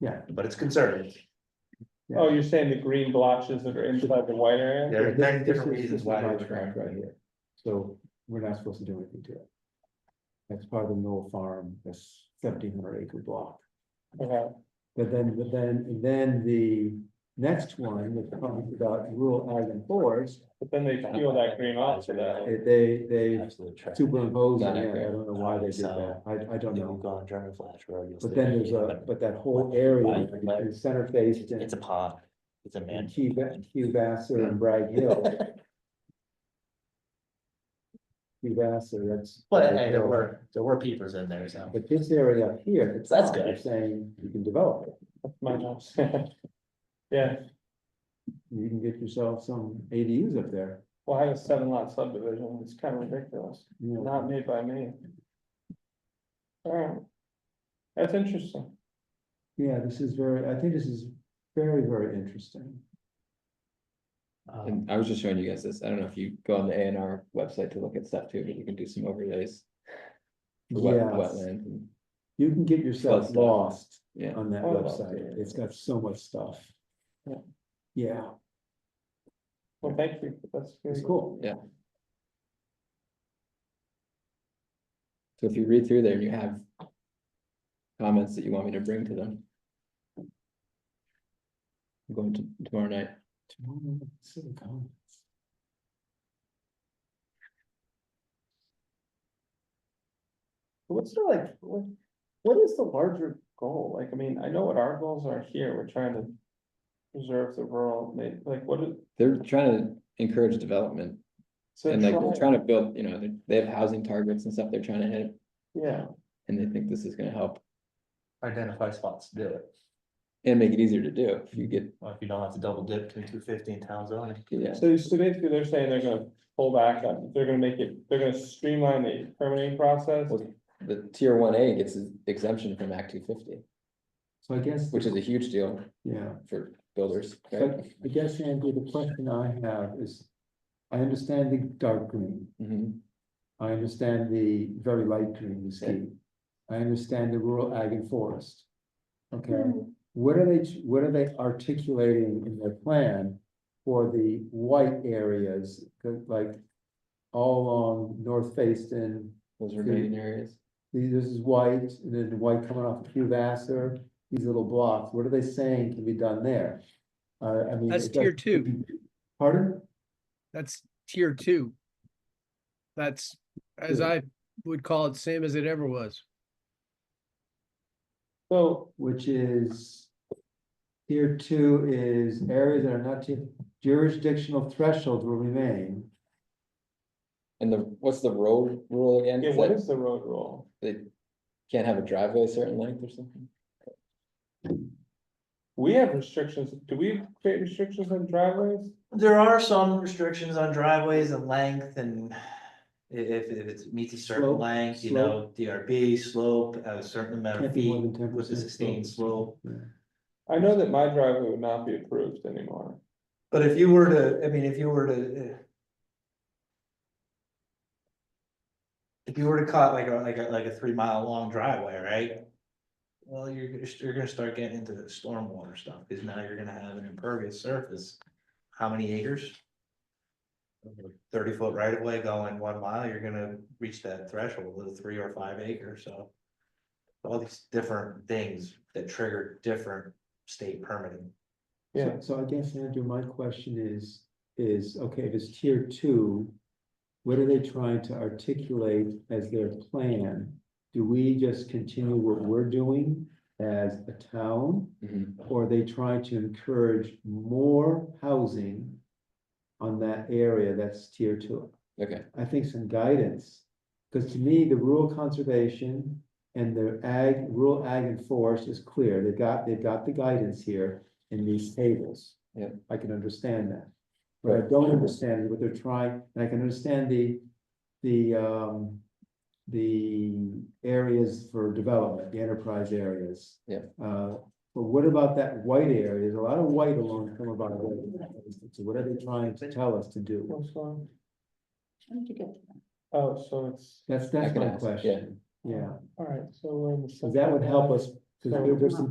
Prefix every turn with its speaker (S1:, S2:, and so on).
S1: Yeah.
S2: But it's conservative.
S3: Oh, you're saying the green blotches that are inside the white area?
S2: There are nine
S1: This
S2: different
S1: is- this
S2: reasons
S1: is
S2: why.
S1: my
S2: they're
S1: tract Right here, so we're not supposed to do anything to it. That's part of the Mill Farm, this seventeen hundred acre block.
S3: Okay,
S1: But then, but then, and then the next one, that comes about rural ag and forest,
S3: but then they peel that green off to that.
S1: eh, they, they
S2: Absolute tract.
S1: superimposed,
S2: Got
S1: it. Yeah,
S2: it,
S1: I
S2: right.
S1: don't know why they did
S2: So,
S1: that, I, I don't
S2: Then you
S1: know.
S2: go on German flash where you'll
S1: But
S2: see-
S1: then there's a, but that whole area, between center faced and.
S2: It's a pod, it's a
S1: And
S2: man.
S1: Hugh, Ba- Hugh Vassar and Bragg Hill. Hugh Vassar, that's.
S2: But
S1: Bragg
S2: hey, there
S1: Hill.
S2: were, there were peepers in there, so.
S1: But this area up here. it's
S2: That's
S1: not.
S2: good.
S1: You're Saying you can develop it,
S3: That's my house. Yeah,
S1: you can get yourself some ADUs up there,
S3: well, I have a seven lot subdivision, it's kind of ridiculous,
S1: you know.
S3: not made by me. Alright. That's interesting.
S1: Yeah, this is very, I think this is very, very interesting.
S2: um,
S4: And Um, I was just showing you guys this. I don't know if you go on the A and R website to look at stuff too, but you can do some overlays. for wet-
S1: Yes,
S4: Wetland, and-
S1: you can get
S4: Plus
S1: yourself
S4: stuff.
S1: lost
S4: yeah.
S1: on that
S3: Oh,
S1: website, it's got so much stuff. Yeah,
S3: Well, thank you, that's.
S1: it's
S3: really-
S1: cool.
S4: So if you read through there and you have comments that you want me to bring to them. I'm going to tomorrow night.
S1: Tomorrow, Civic Hall.
S3: What's the like, what, what is the larger goal? Like, I mean, I know what our goals are here, we're trying to. Preserve the rural, ma- like, what is?
S4: They're trying to encourage development
S3: so
S4: and like
S3: try-
S4: they're trying to build, you know, they- they have housing targets and stuff they're trying to hit.
S3: Yeah,
S4: And they think this is gonna help
S2: uh, Identify spots to do it,
S4: and make it easier to do if you get,
S2: Well, if you don't have to double dip between two fifty and town zoning.
S4: yeah.
S3: so, so basically they're saying they're gonna pull back on, they're gonna make it, they're gonna streamline the permitting process.
S4: Well, The tier one A gets exemption from Act two fifty.
S1: So I guess,
S4: Which is a huge deal
S1: yeah.
S4: for builders, right?
S1: But I guess, Andrew, the question I have is, I understand the dark green,
S4: Mhm.
S1: I understand the very light green, the scheme. I understand the rural ag and forest. Okay, what are they, what are they articulating in their plan for the white areas, like all along North Facein,
S4: those remaining areas.
S1: these, this is white, and then the white coming off Hugh Vassar, these little blocks, what are they saying can be done there? Uh, I mean.
S5: That's
S1: it does-
S5: tier two.
S1: Pardon?
S5: That's tier two. That's, as
S1: Good.
S5: I would call it, same as it ever was.
S3: So,
S1: which is. Tier two is areas that are not ju- jurisdictional thresholds will remain.
S4: And the, what's the road rule again?
S3: yeah,
S4: Is
S3: what
S4: that
S3: is the road rule?
S4: They can't have a driveway a certain length or something?
S3: We have restrictions, do we create restrictions on driveways?
S2: There are some restrictions on driveways and length and i- if, if it meets a certain
S1: Slope,
S2: length, you know, DRB slope, a certain amount
S1: Can't
S2: of
S1: be more
S2: feet.
S1: than 10%
S2: With a sustained slope.
S3: I know that my driveway would not be approved anymore.
S2: But if you were to, I mean, if you were to. uh, If you were to cut like a, like a, like a three mile long driveway, right? Well, you're, gonna- you're gonna start getting into the stormwater stuff, cause now you're gonna have an impervious surface. How many acres? Thirty foot right of way going one mile, you're gonna reach that threshold of three or five acres, so. All these different things that trigger different state permitting.
S3: Yeah,
S1: So- So I guess, Andrew, my question is, is, okay, if it's tier two. What are they trying to articulate as their plan? Do we just continue what we're doing as a town?
S3: Mm-hmm.
S4: Mhm.
S1: Or are they trying to encourage more housing? On that area that's tier two?
S4: Okay,
S1: I think some guidance. Because to me, the rural conservation and the ag, rural ag and forest is clear. They've got, they've got the guidance here in these tables.
S4: Yeah.
S1: I can understand that. But I don't understand what they're trying, and I can understand the, the, um, the areas for development, the enterprise areas.
S4: Yeah.
S1: Uh, but what about that white area? There's a lot of white along Come about. So what are they trying to tell us to do?
S3: what's wrong?
S6: How did you get to that?
S3: Oh, so it's,
S1: That's, that's
S4: can
S1: my
S4: ask, yeah.
S1: question, yeah,
S3: alright, so we're in the.
S1: so that would help us, because
S3: So-
S1: there's some